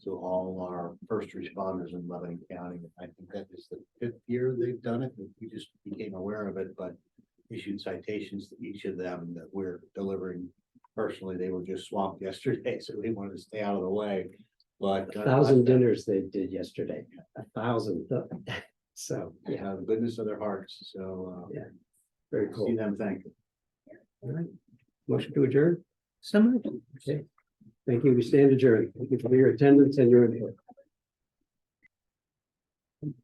all our first responders in Lebanon County. I think that is the fifth year they've done it. We just became aware of it, but issued citations to each of them that we're delivering. Personally, they were just swamped yesterday, so they wanted to stay out of the way, but. uh, Thousand dinners they did yesterday, a thousand. So, You yeah, know, the goodness of their hearts, so. uh, Yeah, very See cool. them, thank you. All right. Motion to adjourn? Some. Thank you. We stand adjourned. Thank you for your attendance and your input.